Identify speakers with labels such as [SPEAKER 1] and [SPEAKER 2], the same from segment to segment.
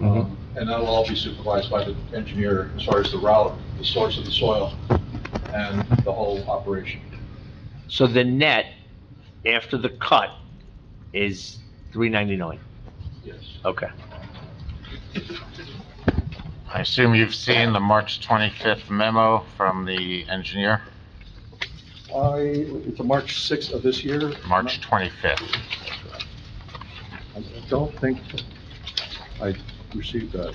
[SPEAKER 1] Um, and that'll all be supervised by the engineer as far as the route, the source of the soil, and the whole operation.
[SPEAKER 2] So the net after the cut is 399.
[SPEAKER 1] Yes.
[SPEAKER 2] Okay.
[SPEAKER 3] I assume you've seen the March 25th memo from the engineer,
[SPEAKER 1] I, it's a March 6th of this year.
[SPEAKER 3] March 25th.
[SPEAKER 1] I don't think I received that.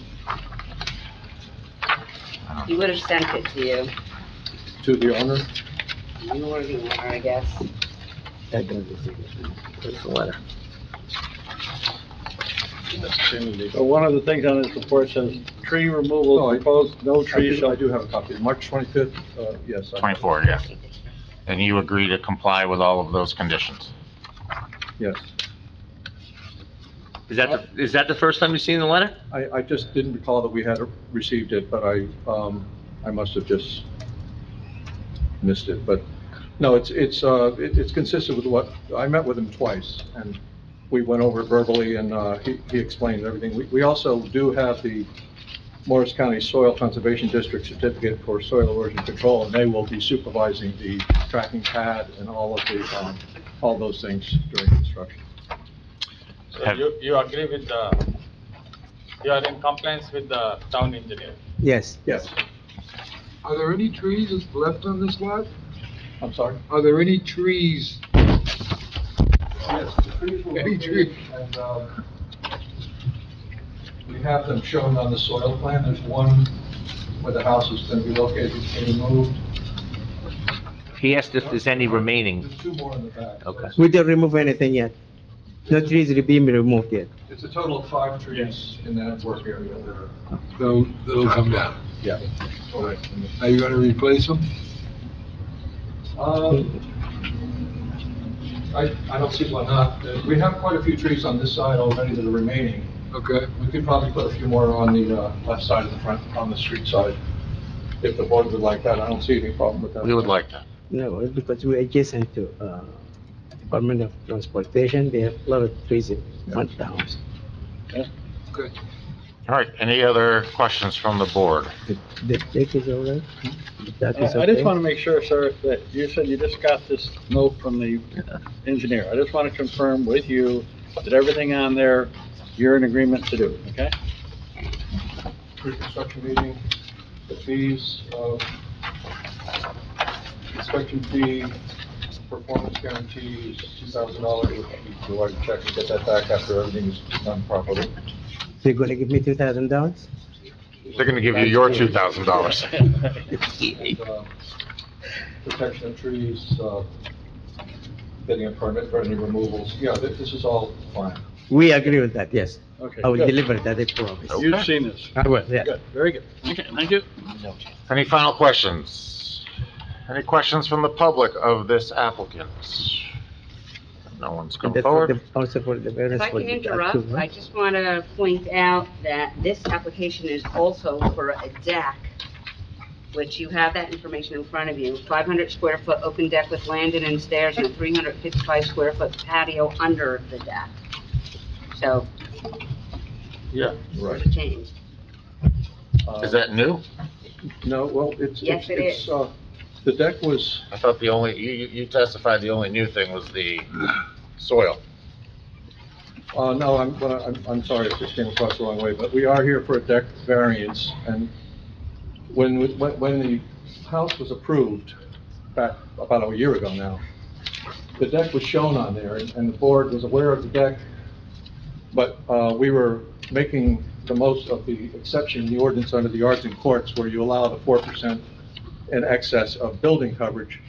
[SPEAKER 4] He would have sent it to you.
[SPEAKER 1] To the owner?
[SPEAKER 4] You were the owner, I guess.
[SPEAKER 5] So one of the things on this report says, tree removal
[SPEAKER 1] No, Oh, I-
[SPEAKER 5] proposed, no trees
[SPEAKER 1] I
[SPEAKER 5] shall
[SPEAKER 1] do have a copy. March 25th, uh, yes. I-
[SPEAKER 3] 24, yeah. And you agree to comply with all of those conditions?
[SPEAKER 1] Yes.
[SPEAKER 2] Is that, the- is that the first time you've seen the letter?
[SPEAKER 1] I, I just didn't recall that we had received it, but I, um, I must have just missed it, but, no, it's, it's, uh, it- it's consistent with what, I met with him twice, and we went over it verbally, and, uh, he, he explained everything. We, we also do have the Morris County Soil Conservation District Certificate for Soil Erosion Control, and they will be supervising the tracking pad and all of the, um, all those things during construction.
[SPEAKER 6] So
[SPEAKER 3] Have-
[SPEAKER 6] you, you agree with the, you are in compliance with the town engineer?
[SPEAKER 7] Yes,
[SPEAKER 1] Yes,
[SPEAKER 8] Are there any trees left on this lot?
[SPEAKER 1] I'm sorry?
[SPEAKER 8] Are there any trees?
[SPEAKER 1] Yes, the trees will be treated, and, um, we have them shown on the soil plan, there's one where the house is gonna be located, it's gonna be moved.
[SPEAKER 2] He asked if there's any remaining.
[SPEAKER 1] There's two more in the back. so
[SPEAKER 2] Okay.
[SPEAKER 1] it's-
[SPEAKER 7] we didn't remove anything yet. No trees are being removed yet.
[SPEAKER 1] It's a total of five trees in that work area there.
[SPEAKER 8] They'll, they'll come down.
[SPEAKER 1] Yeah.
[SPEAKER 8] Are you gonna replace them?
[SPEAKER 1] Um, I, I don't see why not, Uh, we have quite a few trees on this side already that are remaining.
[SPEAKER 8] Okay.
[SPEAKER 1] We could probably put a few more on the, uh, left side of the front, on the street side, if the board would like that, I don't see any problem with that.
[SPEAKER 3] We would like that.
[SPEAKER 7] No, it's because we're adjacent to, uh, Department of Transportation, they have a lot of trees in front of the house.
[SPEAKER 3] All right, any other questions from the board?
[SPEAKER 7] The, the deck is all right? That is
[SPEAKER 5] Uh, I I just
[SPEAKER 7] okay?
[SPEAKER 5] want to make sure, sir, that you said you just got this note from the engineer. I just want to confirm with you that everything on there, you're in agreement to do, okay?
[SPEAKER 1] pre-construction meeting, the fees, uh, inspection fee, performance guarantee is two thousand dollars, which we can write a check and get that back after everything is done properly.
[SPEAKER 7] They're gonna give me two thousand dollars?
[SPEAKER 3] They're going to give you your $2,000.
[SPEAKER 1] And, uh, Protection of trees, uh, getting a permit for any removals, yeah, thi- this is all fine.
[SPEAKER 7] We agree with that, yes.
[SPEAKER 5] Okay,
[SPEAKER 7] I
[SPEAKER 1] Oh.
[SPEAKER 7] will
[SPEAKER 5] good.
[SPEAKER 7] deliver that, I promise.
[SPEAKER 5] You've seen this.
[SPEAKER 7] I will, yeah.
[SPEAKER 5] Good, very good. Okay, thank you.
[SPEAKER 3] Any final questions? Any questions from the public of this applicant? No one's
[SPEAKER 7] And
[SPEAKER 3] come
[SPEAKER 7] that's for
[SPEAKER 3] forward?
[SPEAKER 7] the- Also for the
[SPEAKER 4] If
[SPEAKER 7] variance
[SPEAKER 4] I
[SPEAKER 7] for
[SPEAKER 4] can
[SPEAKER 7] the... uh,
[SPEAKER 4] interrupt, I just want to point out that this application is also for a deck, which you have that information in front of you. 500 square foot open deck with landing and stairs and a 355 square foot patio under the deck. So
[SPEAKER 1] Yeah.
[SPEAKER 4] there's
[SPEAKER 1] Right.
[SPEAKER 4] a change.
[SPEAKER 1] Uh,
[SPEAKER 3] Is that new?
[SPEAKER 1] No, well, it's, it's,
[SPEAKER 4] Yes, it
[SPEAKER 1] it's,
[SPEAKER 4] is.
[SPEAKER 1] uh, the deck was,
[SPEAKER 3] I thought the only, you, you you testified the only new thing was the soil.
[SPEAKER 1] Uh, no, I'm, but I'm, I'm sorry if this came across the wrong way, but we are here for a deck variance, and when, we- when, when the house was approved, back about a year ago now, the deck was shown on there, and and the board was aware of the deck, but, uh, we were making the most of the exception, the ordinance under the arts and courts, where you allow the four percent in excess of building coverage.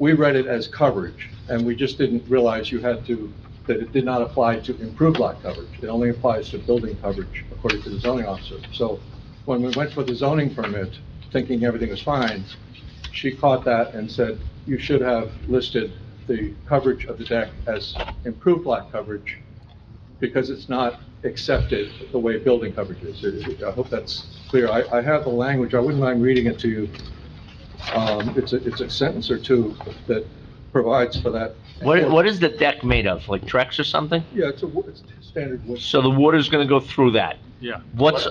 [SPEAKER 1] We read it as coverage, and we just didn't realize you had to, that it did not apply to improved lot coverage. It only applies to building coverage, according to the zoning officer. So when we went for the zoning permit, thinking everything was fine, she caught that and said, you should have listed the coverage of the deck as improved lot coverage, because it's not accepted the way building coverage is. I hope that's clear. I, I have the language, I wouldn't mind reading it to you. Um, it's a, it's a sentence or two that provides for that.
[SPEAKER 2] What, what is the deck made of? Like Trex or something?
[SPEAKER 1] Yeah, it's a, wo- it's standard wood.
[SPEAKER 2] So the water's gonna go through that?
[SPEAKER 5] Yeah.
[SPEAKER 2] What's